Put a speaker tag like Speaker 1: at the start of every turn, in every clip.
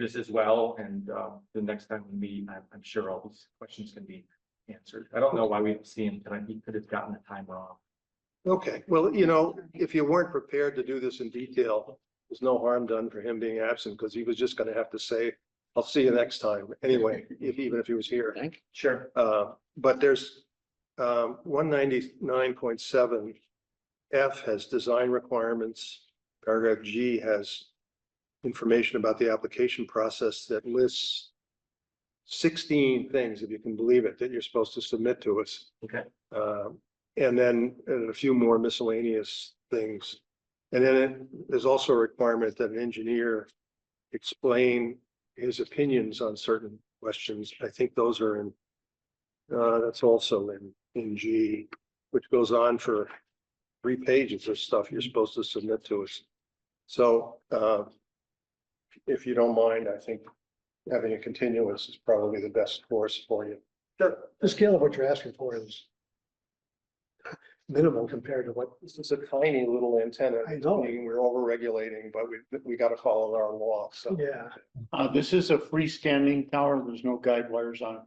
Speaker 1: this as well, and uh, the next time we meet, I'm, I'm sure all these questions can be answered. I don't know why we didn't see him tonight, he could have gotten the time wrong.
Speaker 2: Okay, well, you know, if you weren't prepared to do this in detail, there's no harm done for him being absent because he was just gonna have to say, I'll see you next time anyway, if, even if he was here.
Speaker 3: Thank.
Speaker 1: Sure.
Speaker 2: Uh, but there's, um, one ninety-nine point seven. F has design requirements. Paragraph G has information about the application process that lists sixteen things, if you can believe it, that you're supposed to submit to us.
Speaker 1: Okay,
Speaker 2: Um and then uh, a few more miscellaneous things. And then it- there's also a requirement that an engineer explain his opinions on certain questions. I think those are in, uh, that's also in, in G, which goes on for three pages of stuff you're supposed to submit to us. So, uh, if you don't mind, I think having a continuance is probably the best course for you.
Speaker 4: The scale of what you're asking for is minimal compared to what,
Speaker 2: This is a tiny little antenna.
Speaker 4: I know.
Speaker 2: Meaning We're overregulating, but we, we gotta follow our law, so.
Speaker 4: yeah,
Speaker 5: Uh, this is a freestanding tower. There's no guide wires on it.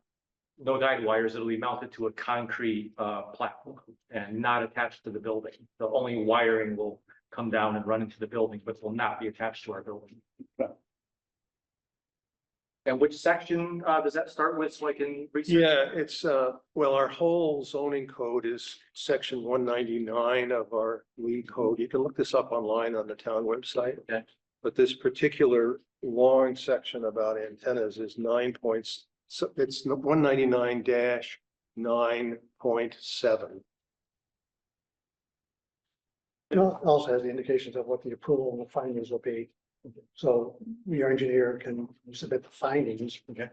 Speaker 1: no guide wires, it'll be mounted to a concrete uh, platform and not attached to the building. The only wiring will come down and run into the building, but will not be attached to our building. And which section uh, does that start with, so I can? research?
Speaker 2: Yeah, it's, uh, well, our whole zoning code is section one ninety-nine of our lead code. You can look this up online on the town website.
Speaker 1: Okay.
Speaker 2: But this particular long section about antennas is nine points, so it's one ninety-nine dash nine point seven.
Speaker 4: it al- also has the indications of what the approval and the findings will be. So your engineer can submit the findings.
Speaker 1: Okay.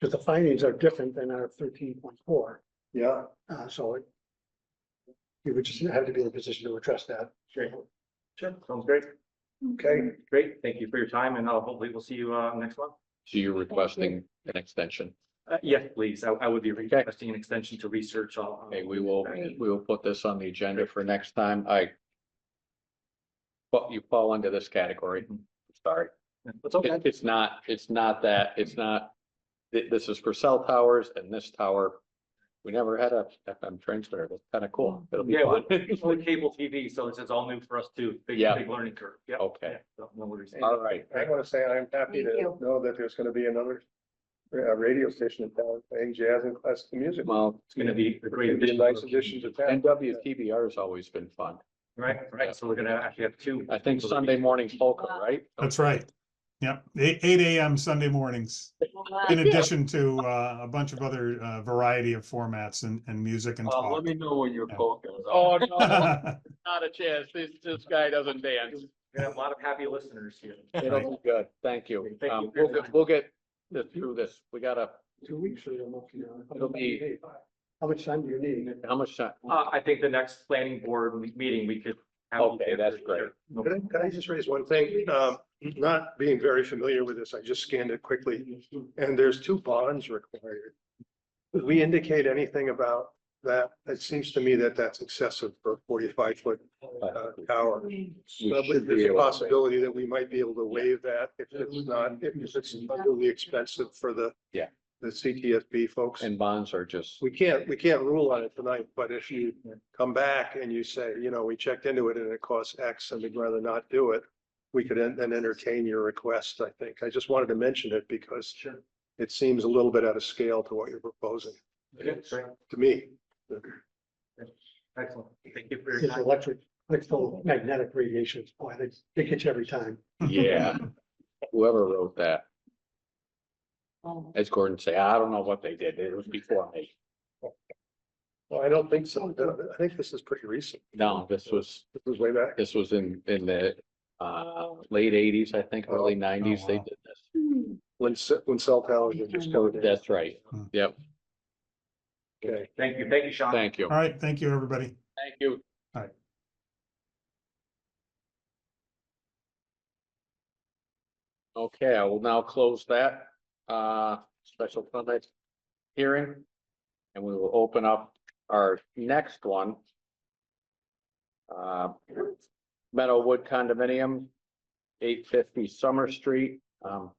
Speaker 4: Because the findings are different than our thirteen point four,
Speaker 2: Yeah,
Speaker 4: uh, so it. You would just have to be in a position to address that.
Speaker 1: Great. Sure, sounds great.
Speaker 2: okay.
Speaker 1: Great, thank you for your time, and uh, hopefully we'll see you uh, next month.
Speaker 3: So you're requesting an extension.
Speaker 1: Uh, yes, please. I, I would be requesting an extension to research all.
Speaker 3: Okay, we will, we will put this on the agenda for next time. I. But you fall under this category. Sorry.
Speaker 1: That's Mm-hmm. okay.
Speaker 3: It- It's not, it's not that, it's not. thi- This is for cell towers and this tower. We never had a FM transmitter. That's kind of cool. It'll be
Speaker 1: Mm-hmm. Yeah,
Speaker 3: fun.
Speaker 1: it's only cable TV, so this is all new for us too. Big,
Speaker 3: Yeah.
Speaker 1: big learning curve. Yeah.
Speaker 3: Okay, Uh,
Speaker 1: So, no worries.
Speaker 3: all right.
Speaker 2: I want to say I'm happy
Speaker 6: Thank
Speaker 2: to
Speaker 6: you.
Speaker 2: know that there's gonna be another uh, radio station in town playing jazz and classical music.
Speaker 3: Well,
Speaker 1: It's gonna be a great
Speaker 2: It'd be a
Speaker 1: addition.
Speaker 2: nice addition to town.
Speaker 3: NWTBR has always been fun.
Speaker 1: Right, right. So we're gonna actually have two.
Speaker 3: I think Sunday morning's local, right?
Speaker 7: That's right. Yep, eight, eight AM Sunday mornings, in addition to uh, a bunch of other uh, variety of formats and, and music and
Speaker 3: Uh,
Speaker 7: talk.
Speaker 3: me know when your
Speaker 7: Yeah.
Speaker 3: coke goes. Oh, no, not a chance. This, this guy doesn't dance.
Speaker 1: We're gonna have a lot of happy listeners here.
Speaker 3: It'll be good. Thank you.
Speaker 1: Thank you
Speaker 3: Um,
Speaker 1: for your
Speaker 3: we'll, get-
Speaker 1: time.
Speaker 3: we'll get this through this. We gotta,
Speaker 4: Two weeks, so you'll know. you know, how
Speaker 3: It'll
Speaker 4: much you
Speaker 3: be-
Speaker 4: need. How much time do you need?
Speaker 3: how much time?
Speaker 1: Uh, I think the next planning board me- meeting, we could. have-
Speaker 3: Okay, that's great.
Speaker 1: No
Speaker 2: Can I, can I just raise one thing? Um, not being very familiar with this, I just scanned it quickly. And there's two bonds required. Did we indicate anything about that? It seems to me that that's excessive for a forty-five foot uh, tower.
Speaker 3: We
Speaker 2: But
Speaker 3: should be
Speaker 2: There's a
Speaker 3: able to-
Speaker 2: possibility that we might be able to waive that if it's not, if it's really expensive for the
Speaker 3: Yeah.
Speaker 2: the CTSB folks.
Speaker 3: And bonds are just,
Speaker 2: We can't, we can't rule on it tonight, but if you come back and you say, you know, we checked into it and it costs X and we'd rather not do it. We could en- then entertain your request, I think. I just wanted to mention it because
Speaker 1: Sure.
Speaker 2: it seems a little bit out of scale to what you're proposing,
Speaker 1: Okay, great.
Speaker 2: to me.
Speaker 1: Excellent. Thank you for your
Speaker 4: It's
Speaker 1: time.
Speaker 4: electric, electromagnetic radiation. Boy, they, they catch every time.
Speaker 3: yeah. Whoever wrote that, as Gordon say, I don't know what they did. It was before me.
Speaker 2: Well, I don't think so. I think this is pretty recent.
Speaker 3: No, this was,
Speaker 2: This was way back.
Speaker 3: this was in, in the, uh, late eighties, I think,
Speaker 1: Oh,
Speaker 3: early nineties, they
Speaker 7: wow.
Speaker 3: did this.
Speaker 2: When, ce- when cell towers were just going in.
Speaker 3: That's right. Yep.
Speaker 2: Okay.
Speaker 1: Thank you, thank you, Sean.
Speaker 3: Thank you.
Speaker 7: All right, thank you, everybody.
Speaker 3: Thank you. Okay, I will now close that uh special permit hearing. And we will open up our next one. Uh, Meadowwood condominium, eight fifty Summer Street. Um,